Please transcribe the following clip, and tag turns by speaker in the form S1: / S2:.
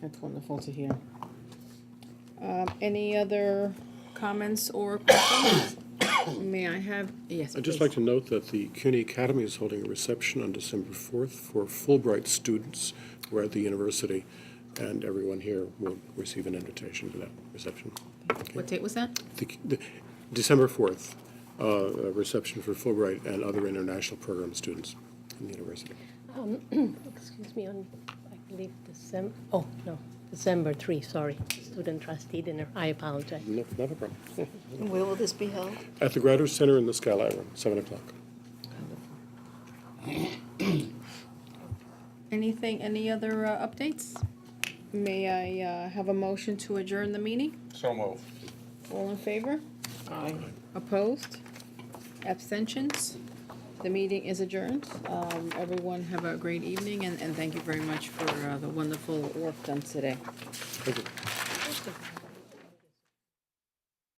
S1: That's wonderful to hear. Um, any other comments or questions? May I have, yes,
S2: I'd just
S1: please.
S2: like to note that the CUNY Academy is holding a reception on December 4th for Fulbright students who are at the university, and everyone here will receive an invitation to that reception.
S1: What date was that?
S2: The- the- December 4th, uh, a reception for Fulbright and other international program students in the university.
S3: Um, Excuse me, on, I believe December, oh, no, December 3, sorry, student trustee dinner, I apologize.
S2: No, Not a problem.
S4: Where will this be held?
S2: At the Graduate Center in the Skylight Room, 7 o'clock.
S1: Anything, any other uh, updates? May I uh, have a motion to adjourn the meeting?
S5: So moved.
S1: All in favor?
S4: Aye.
S1: Opposed? Abstentions? The meeting is adjourned. Um, Everyone have a great evening, and and thank you very much for uh, the wonderful work done today.
S2: Thank you.
S3: Just a